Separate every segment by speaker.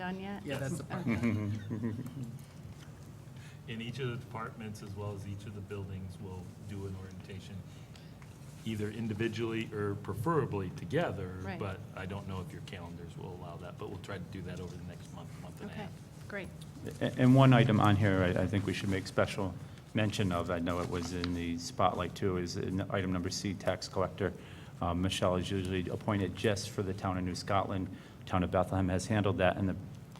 Speaker 1: done yet?
Speaker 2: Yeah, that's the part.
Speaker 3: And each of the departments, as well as each of the buildings, will do an orientation, either individually or preferably together.
Speaker 1: Right.
Speaker 3: But I don't know if your calendars will allow that, but we'll try to do that over the next month, month and a
Speaker 1: Okay,
Speaker 3: half.
Speaker 1: great.
Speaker 4: A- And one item on here, I, I think we should make special mention of, I know it was in the spotlight too, is in item number C, tax collector. Um, Michelle is usually appointed just for the town of New Scotland. Town of Bethlehem has handled that in the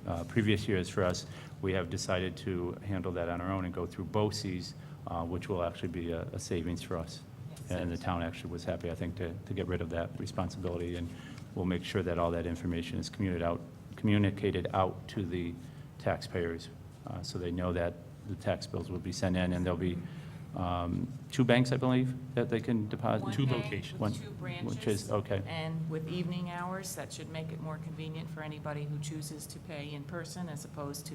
Speaker 4: uh, previous years for us. We have decided to handle that on our own and go through BOCES, uh, which will actually be a a savings for us. And the town actually was happy, I think, to, to get rid of that responsibility, and we'll make sure that all that information is communicated out, communicated out to the taxpayers, uh, so they know that the tax bills will be sent in, and there'll be um, two banks, I believe, that they can deposit?
Speaker 3: Two
Speaker 5: One bank With
Speaker 3: locations.
Speaker 4: One-
Speaker 5: two
Speaker 4: Which is,
Speaker 5: branches.
Speaker 4: okay,
Speaker 5: And with evening hours, that should make it more convenient for anybody who chooses to pay in person as opposed to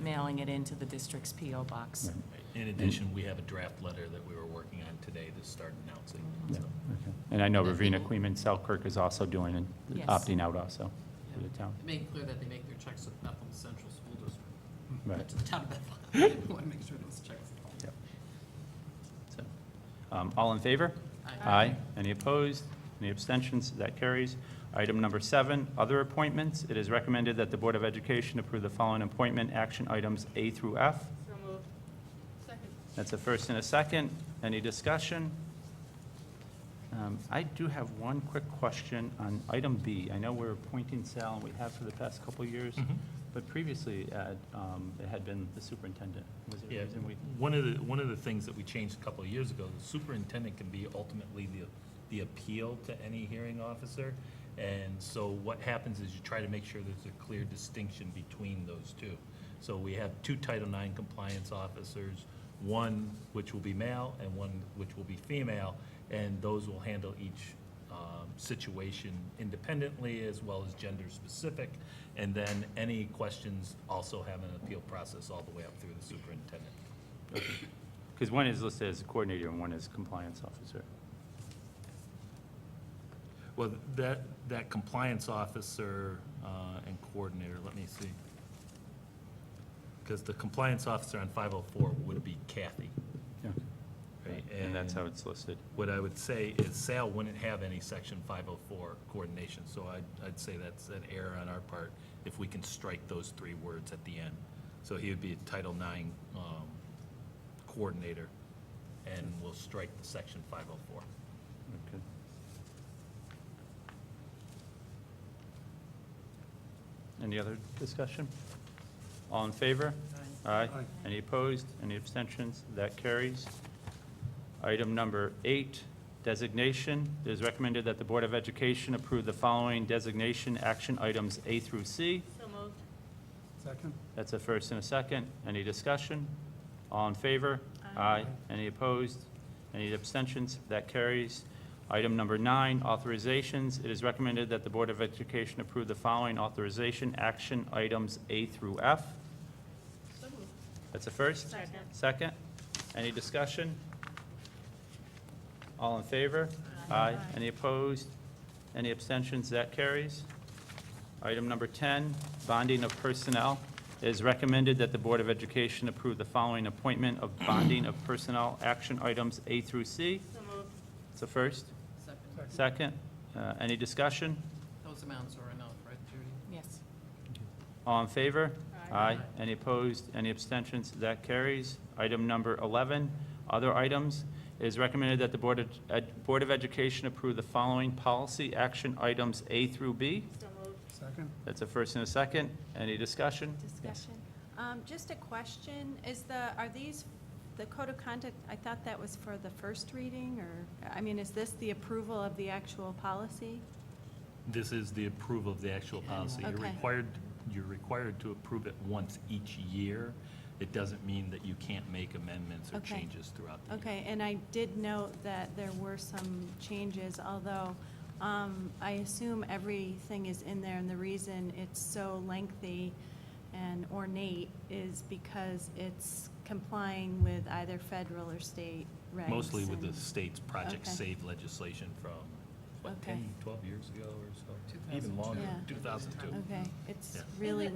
Speaker 5: mailing it into the district's PO box.
Speaker 4: Right.
Speaker 3: In addition, we have a draft letter that we were working on today to start announcing.
Speaker 4: Yeah,
Speaker 3: so.
Speaker 4: okay. And I know Ravina Queeman Selkirk is also doing, and
Speaker 5: Yes.
Speaker 4: opting out also for the town.
Speaker 2: Make clear that they make their checks at Bethel Central School District,
Speaker 4: Right.
Speaker 2: not to the town of Bethel. We want to make sure those checks.
Speaker 4: Yep. So, um, All in favor? Aye. Any opposed? Any abstentions? That carries. Item number seven, other appointments. It is recommended that the Board of Education approve the following appointment action items A through F.
Speaker 6: So moved. Second.
Speaker 4: That's a first and a second. Any discussion? Um, I do have one quick question on item B. I know we're appointing Sal, and we have for the past couple of years,
Speaker 3: Mhm.
Speaker 4: but previously, uh, um, it had been the superintendent. Was there
Speaker 3: Yeah,
Speaker 4: a reason we?
Speaker 3: one of the, one of the things that we changed a couple of years ago, the superintendent can be ultimately the, the appeal to any hearing officer. And so what happens is you try to make sure there's a clear distinction between those two. So we have two Title IX compliance officers, one which will be male and one which will be female, and those will handle each um, situation independently as well as gender-specific. And then any questions also have an appeal process all the way up through the superintendent.
Speaker 4: Because one is listed as a coordinator and one is compliance officer.
Speaker 3: Well, that, that compliance officer uh, and coordinator, let me see. Because the compliance officer on 504 would be Kathy. right?
Speaker 4: And that's how it's listed.
Speaker 3: What I would say is Sal wouldn't have any Section 504 coordination, so I'd, I'd say that's an error on our part if we can strike those three words at the end. So he would be a Title IX um, coordinator, and we'll strike the Section 504.
Speaker 4: Okay. Any other discussion? All in favor? Aye. Any opposed? Any abstentions? That carries. Item number eight, designation. It is recommended that the Board of Education approve the following designation action items A through C.
Speaker 6: So moved.
Speaker 7: Second?
Speaker 4: That's a first and a second. Any discussion? All in favor? Aye. Any opposed? Any abstentions? That carries. Item number nine, authorizations. It is recommended that the Board of Education approve the following authorization action items A through F.
Speaker 6: So moved.
Speaker 4: That's a first?
Speaker 6: Second.
Speaker 4: Second. Any discussion? All in favor?
Speaker 6: Aye.
Speaker 4: Any opposed? Any abstentions? That carries. Item number 10, bonding of personnel. It is recommended that the Board of Education approve the following appointment of bonding of personnel action items A through C.
Speaker 6: So moved.
Speaker 4: It's a first.
Speaker 2: Second.
Speaker 4: Second. Uh, Any discussion?
Speaker 2: Those amounts are enough, right, Judy?
Speaker 5: Yes.
Speaker 4: All in favor?
Speaker 6: Aye.
Speaker 4: Any opposed? Any abstentions? That carries. Item number 11, other items. It is recommended that the Board of, Ed- Board of Education approve the following policy action items A through B.
Speaker 6: So moved.
Speaker 7: Second?
Speaker 4: That's a first and a second. Any discussion?
Speaker 1: Discussion. Um, Just a question, is the, are these, the code of conduct, I thought that was for the first reading, or, I mean, is this the approval of the actual policy?
Speaker 3: This is the approval of the actual policy. You're
Speaker 1: Okay.
Speaker 3: required, you're required to approve it once each year. It doesn't mean that you can't make amendments or
Speaker 1: Okay.
Speaker 3: changes throughout the year.
Speaker 1: Okay, and I did note that there were some changes, although um, I assume everything is in there, and the reason it's so lengthy and ornate is because it's complying with either federal or state regs.
Speaker 3: Mostly with the
Speaker 1: and-
Speaker 3: state's Project
Speaker 1: Okay.
Speaker 3: Save legislation from, what,
Speaker 1: Okay.
Speaker 3: 10, 12 years ago or so? Even
Speaker 2: 2002.
Speaker 3: longer,
Speaker 1: Yeah.
Speaker 3: 2002.
Speaker 1: Okay, it's
Speaker 3: Yeah.
Speaker 1: really